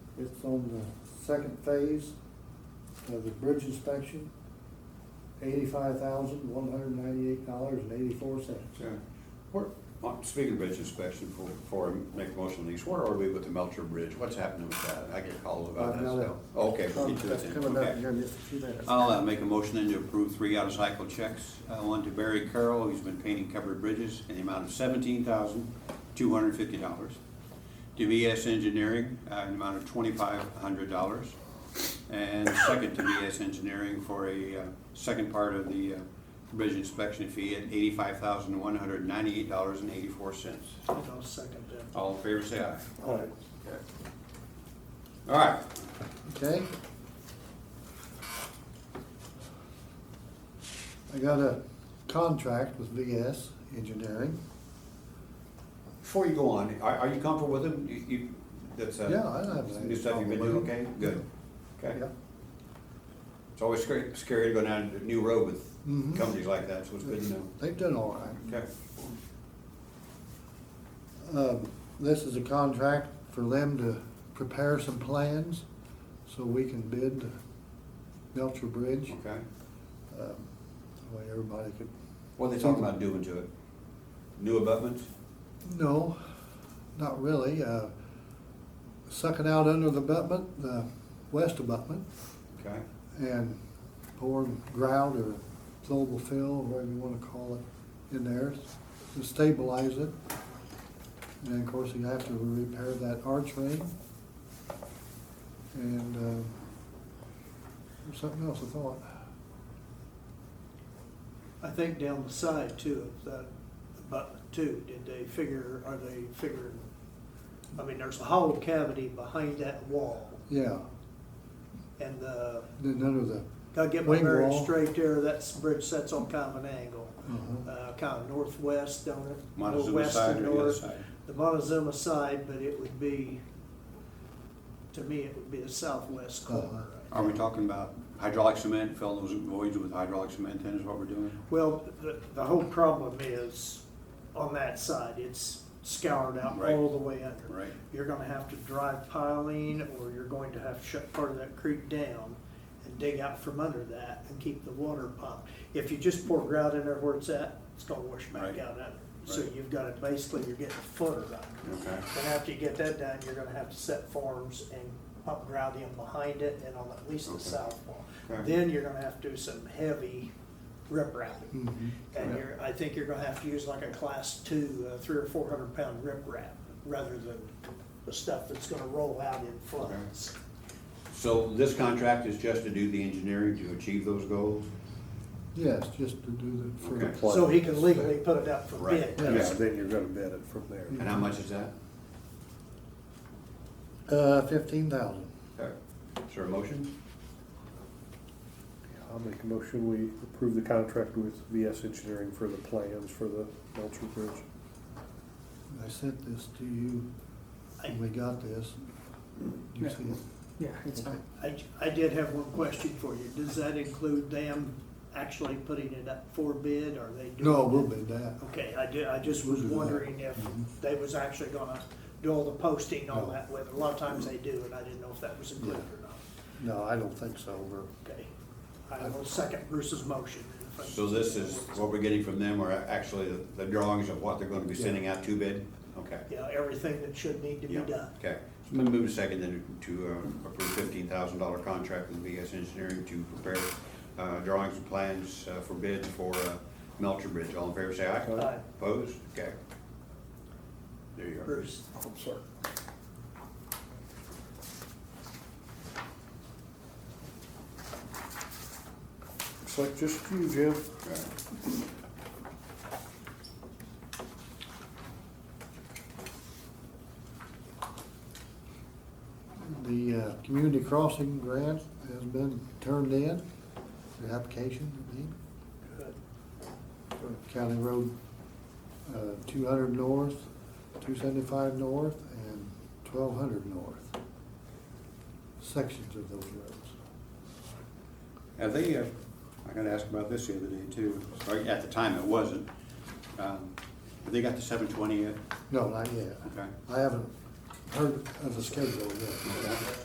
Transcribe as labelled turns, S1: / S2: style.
S1: It's on the second phase of the bridge inspection, eighty-five thousand, one hundred ninety-eight dollars and eighty-four cents.
S2: Sure. Where, well, speaking of bridge inspection, before, before I make a motion on these, where are we with the Melcher Bridge? What's happening with that? I get called about that
S1: Another-
S2: still. Okay, we'll get to it
S1: That's
S2: then.
S1: coming up
S2: Okay.
S1: here in just a few minutes.
S2: I'll uh, make a motion then to approve three out-of-cycle checks. Uh, One to Barry Carroll, who's been painting covered bridges, in the amount of seventeen thousand, two hundred and fifty dollars. To VS Engineering, uh, an amount of twenty-five hundred dollars. And second to VS Engineering for a uh, second part of the uh, bridge inspection fee at eighty-five thousand, one hundred and ninety-eight dollars and eighty-four cents.
S3: I'll second that.
S2: All in favor, say aye.
S1: All right.
S2: Okay. All right,
S1: Okay? I got a contract with VS Engineering.
S2: Before you go on, are, are you comfortable with them? You, you, that's, uh.
S1: Yeah, I don't have any
S2: New stuff you've been doing,
S1: problem with
S2: okay?
S1: them.
S2: Good. Okay.
S1: Yep.
S2: It's always scary, scary to go down a new road with
S1: Mhm.
S2: companies like that, so it's good to know.
S1: They've done all right.
S2: Okay.
S1: Um, This is a contract for them to prepare some plans so we can bid Melcher Bridge.
S2: Okay.
S1: Um, that Way everybody could,
S2: What are they talking about doing to it? New abutments?
S1: no, not really. Uh, Sucking out under the abutment, the west abutment,
S2: Okay.
S1: and pouring grout or flowable fill, whatever you wanna call it, in there to stabilize it. And then, of course, you have to repair that arch ring. And, uh, there's something else I thought.
S3: I think down the side too, of that abutment too, did they figure, are they figuring? I mean, there's a hollow cavity behind that wall
S1: Yeah,
S3: and the,
S1: then under the,
S3: gotta get my
S1: Wing
S3: bearings
S1: wall.
S3: straight there, that's, bridge sets on kind of an angle.
S1: Mhm.
S3: Uh, kind of northwest, don't it?
S2: Montezuma
S3: Northwest
S2: side
S3: and
S2: or the other
S3: north.
S2: side?
S3: The Montezuma side, but it would be, to me, it would be the southwest corner.
S1: Uh-huh.
S2: Are we talking about hydraulic cement, fill those voids with hydraulic cement then is what we're doing?
S3: Well, the, the whole problem is, on that side, it's scoured out
S2: Right.
S3: all the way under.
S2: Right.
S3: You're gonna have to drive piling, or you're going to have to shut part of that creek down and dig out from under that and keep the water pumped. If you just pour grout in there where it's at, it's gonna wash back
S2: Right.
S3: out under. So
S2: Right.
S3: you've got it, basically, you're getting a footer under.
S2: Okay.
S3: And after you get that done, you're gonna have to set forms and pump grout in behind it and on at least the
S2: Okay.
S3: south wall.
S2: Okay.
S3: Then you're gonna have to do some heavy rip wrapping.
S1: Mhm.
S3: And you're, I think you're gonna have to use like a class two, uh, three or four hundred pound rip wrap rather than the stuff that's gonna roll out in floods.
S2: So this contract is just to do the engineering to achieve those goals?
S1: yes, just to do the, for the
S2: Okay.
S4: Plus-
S3: So he can legally put it up for
S2: Right.
S3: bid.
S4: Yeah,
S1: Yeah.
S4: then you're gonna bid it from there.
S1: Mm-hmm.
S2: And how much is that?
S1: Uh, fifteen thousand.
S2: Okay. Is there a motion?
S4: I'll make a motion, we approve the contract with VS Engineering for the plans for the Melcher Bridge.
S1: I sent this to you when we got this. You see it?
S5: Yeah, it's fine.
S3: I, I did have one question for you. Does that include them actually putting it up for bid or they doing?
S1: No, we'll bid
S3: it?
S1: that.
S3: Okay, I did, I just
S1: We'll
S3: was
S1: do that.
S3: wondering if they was actually gonna do all the posting, all that with, a lot of times they do, and I didn't know if that was included or not.
S1: No, I don't think so. We're,
S3: Okay, I will second Bruce's motion.
S2: So this is what we're getting from them, or actually the- the drawings of what they're gonna be sending out to bid? Okay.
S3: Yeah, everything that should need to be
S2: Yeah.
S3: done.
S2: Okay, so I'm gonna move to second then to uh, approve fifteen thousand dollar contract with VS Engineering to prepare uh, drawings and plans uh, for bids for uh, Melcher Bridge. All in favor, say aye.
S3: Aye.
S2: Opposed? Okay. There you go.
S3: Bruce,
S4: Looks like just you, Jim.
S2: Okay.
S1: the, uh, community crossing grant has been turned in, the application, I mean,
S3: good.
S1: for County Road, uh, two hundred north, two seventy-five north, and twelve hundred north. Sections of those roads.
S2: Have they, uh, I gotta ask about this the other day too, or at the time it wasn't. Um, Have they got the seven twenty yet?
S1: No, not yet.
S2: Okay.
S1: I haven't heard of the schedule yet.